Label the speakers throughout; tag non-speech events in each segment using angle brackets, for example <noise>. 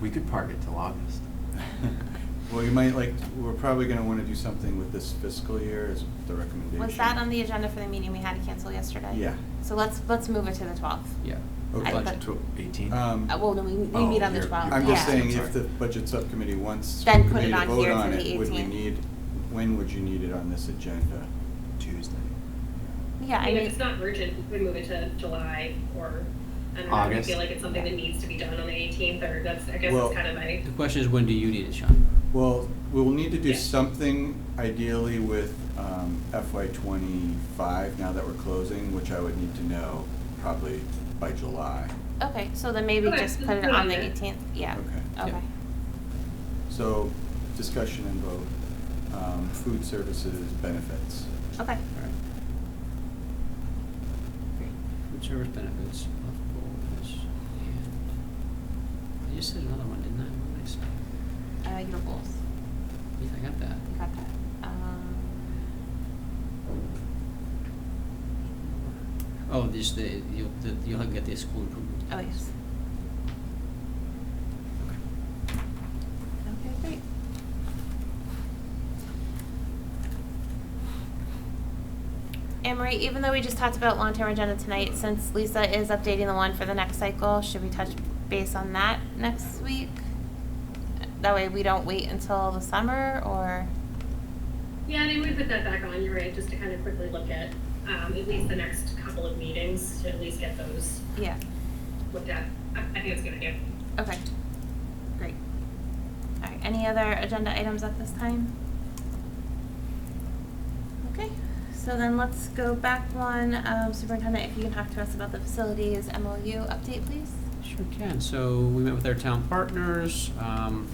Speaker 1: We could park it till August.
Speaker 2: <laughs> Well, you might like, we're probably gonna wanna do something with this fiscal year is the recommendation.
Speaker 3: Was that on the agenda for the meeting we had to cancel yesterday?
Speaker 2: Yeah.
Speaker 3: So let's, let's move it to the twelfth.
Speaker 1: Yeah.
Speaker 2: Okay.
Speaker 3: I
Speaker 1: Budget
Speaker 3: put-
Speaker 1: to eighteen?
Speaker 2: Um,
Speaker 3: Uh, well, no, we, we
Speaker 1: Oh,
Speaker 3: meet on the
Speaker 1: you're-
Speaker 3: twelfth, yeah.
Speaker 2: I'm just
Speaker 1: Yeah.
Speaker 2: saying,
Speaker 1: Sorry.
Speaker 2: if the budget subcommittee wants.
Speaker 3: Then put
Speaker 2: committee
Speaker 3: it
Speaker 2: to
Speaker 3: on
Speaker 2: vote
Speaker 3: here
Speaker 2: on
Speaker 3: for the
Speaker 2: it, Would we
Speaker 3: 18th.
Speaker 2: need, when would you need it on this agenda?
Speaker 1: Tuesday.
Speaker 3: Yeah, I
Speaker 4: mean, if
Speaker 3: mean,
Speaker 4: it's not urgent, we could move it to July or, I don't know, if you
Speaker 1: August.
Speaker 4: feel like it's something that needs to be done on the eighteenth, or that's, I guess
Speaker 2: Well-
Speaker 4: that's kind of my,
Speaker 5: The question is, when do you need it, Sean?
Speaker 2: Well, we'll need to do
Speaker 4: Yeah.
Speaker 2: something ideally with um, FY twenty-five, now that we're closing, which I would need to know probably by July.
Speaker 3: okay, so then maybe
Speaker 4: Okay,
Speaker 3: just
Speaker 4: just
Speaker 3: put it
Speaker 4: put it
Speaker 3: on
Speaker 4: on
Speaker 3: the
Speaker 4: there.
Speaker 3: eighteenth, yeah,
Speaker 2: Okay.
Speaker 3: okay.
Speaker 2: So, discussion and vote, um, food services benefits.
Speaker 3: Okay,
Speaker 5: Food service benefits, health goals, and, I just said another one, didn't I? What did I say?
Speaker 3: uh, your goals,
Speaker 5: Yeah, I got that.
Speaker 3: you got that. Um,
Speaker 5: Oh, this, the, you'll, the- you'll get the school improvement.
Speaker 3: Oh, yes. Okay, great. Anne Marie, even though we just talked about long-term agenda tonight, since Lisa is updating the one for the next cycle, should we touch base on that next week? That way we don't wait until the summer or,
Speaker 4: yeah, and I would put that back on, you're right, just to kind of quickly look at, um, at least the next couple of meetings, to at least get those
Speaker 3: yeah,
Speaker 4: looked at. I, I think it's a good idea.
Speaker 3: okay, great. All right, any other agenda items at this time? Okay, so then let's go back one. Um, Superintendent, if you can talk to us about the facilities MLU update, please?
Speaker 5: Sure can. So we met with our town partners, um,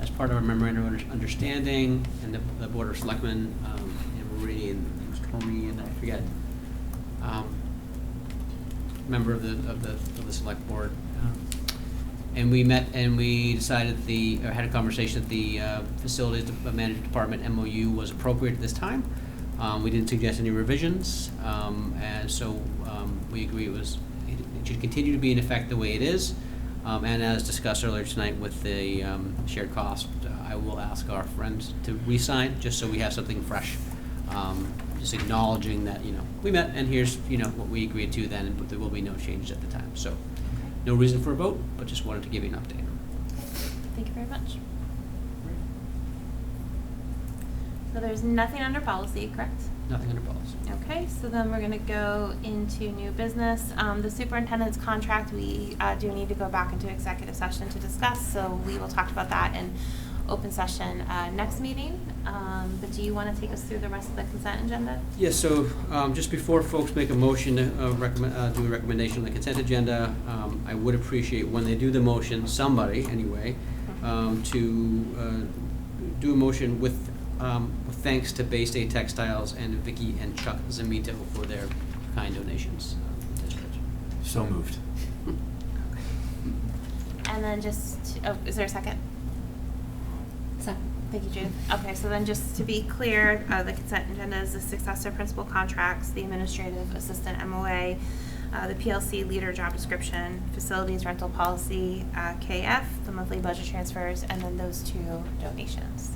Speaker 5: as part of our memorandum of under- understanding, and the, the board of selectmen, um, and Marie and Tommy and I forget, um, member of the, of the, of the select board. um, And we met and we decided the, or had a conversation that the, uh, facilities de- management department MOU was appropriate at this time. Um, we didn't suggest any revisions, um, and so, um, we agree it was, it it should continue to be in effect the way it is. Um, and as discussed earlier tonight with the, um, shared cost, I will ask our friends to re-sign, just so we have something fresh um, just acknowledging that, you know, we met and here's, you know, what we agreed to then, but there will be no changes at the time. So, no reason for a vote, but just wanted to give you an update.
Speaker 3: Thank you very much. So there's nothing under policy, correct?
Speaker 5: Nothing under policy.
Speaker 3: Okay, so then we're gonna go into new business. Um, the superintendent's contract, we, uh, do need to go back into executive session to discuss, so we will talk about that in open session, uh, next meeting. Um, but do you wanna take us through the rest of the consent agenda?
Speaker 5: Yes, so um, just before folks make a motion, uh, recommend- uh, do a recommendation on the consent agenda, um, I would appreciate when they do the motion, somebody anyway, um, to uh, do a motion with um, with thanks to Bay State Textiles and Vicky and Chuck Zamito for their kind donations uh, to the district.
Speaker 1: So
Speaker 5: <laughs>
Speaker 1: moved.
Speaker 3: And then just, to- oh, is there a second? Second. Thank you, Judith. Okay, so then just to be clear, uh, the consent agenda is the successor principal contracts, the administrative assistant MOA, uh, the PLC leader job description, facilities rental policy, uh, KF, the monthly budget transfers, and then those two donations.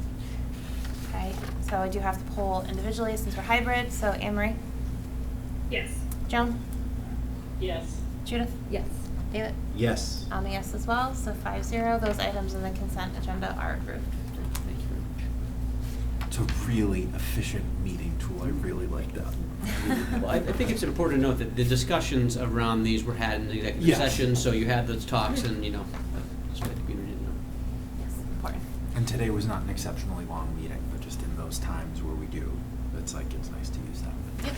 Speaker 3: Okay, so I do have to poll individually since we're hybrid, so Anne Marie,
Speaker 4: Yes.
Speaker 3: Joan,
Speaker 4: Yes.
Speaker 3: Judith? Yes. David?
Speaker 1: Yes.
Speaker 3: I'm a yes as well, so five zero, those items in the consent agenda are approved.
Speaker 5: Thank you very much.
Speaker 1: It's a really efficient meeting tool. I really like that.
Speaker 5: <laughs> Well, I, I think it's important to note that the discussions around these were had in the executive
Speaker 1: Yes.
Speaker 5: session, so you had those talks and, you know, that's what the community didn't know.
Speaker 3: Yes, important.
Speaker 1: And today was not an exceptionally long meeting, but just in those times where we do, it's like, it's nice to use that.
Speaker 3: Yep.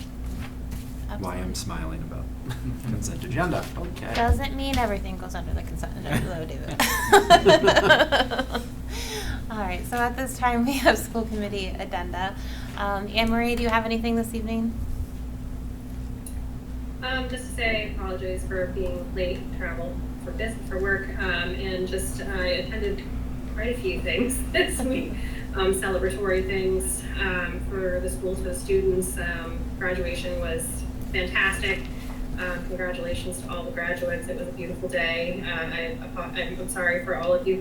Speaker 1: Why I'm
Speaker 3: Absolutely.
Speaker 1: smiling about <laughs> consent agenda, okay.
Speaker 3: Doesn't mean everything goes under the consent agenda, though, David. All right, so at this time, we have school committee addenda. Um, Anne Marie, do you have anything this evening?
Speaker 4: Um, just to say, apologies for being late, travel for business, for work, um, and just, I attended quite a few things <laughs> this week. Um, celebratory things, um, for the schools, for the students, um, graduation was fantastic. Um, congratulations to all the graduates. It was a beautiful day. Uh, I, I'm sorry for all of you